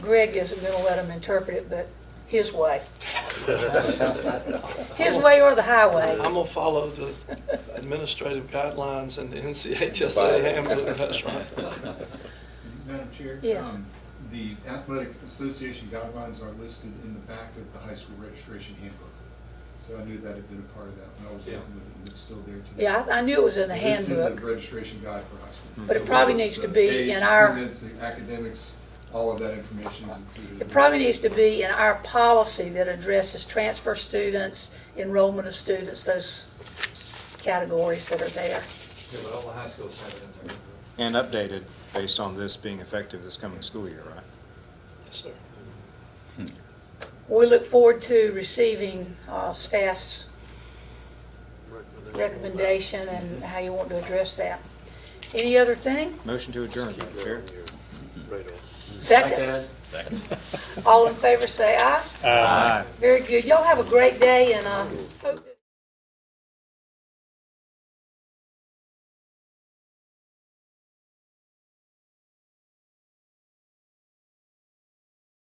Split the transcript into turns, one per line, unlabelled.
Greg isn't going to let him interpret it, but his way. His way or the highway.
I'm gonna follow the administrative guidelines and the
Right.
NCHSA handbook, that's right.
Madam Chair?
Yes.
um, The athletic association guidelines are listed in the back of the high school registration handbook. So I knew that had been a part of that when I was
Yeah.
looking at it, it's still there today.
Yeah, I I knew it was in the
It's in the
handbook.
registration guide for high school.
But it probably needs to be
The age,
in our-
attendance, academics, all of that information is included.
It probably needs to be in our policy that addresses transfer students, enrollment of students, those categories that are there.
Yeah, but all the high schools have it in there.
And updated based on this being effective this coming school year, right?
Yes, sir.
We look forward to receiving uh, staff's recommendation and how you want to address that. Any other thing?
Motion to adjourn, Madam Chair.
Second? Second. All in favor, say aye.
Aye.
Very good. Y'all have a great day and uh, hope.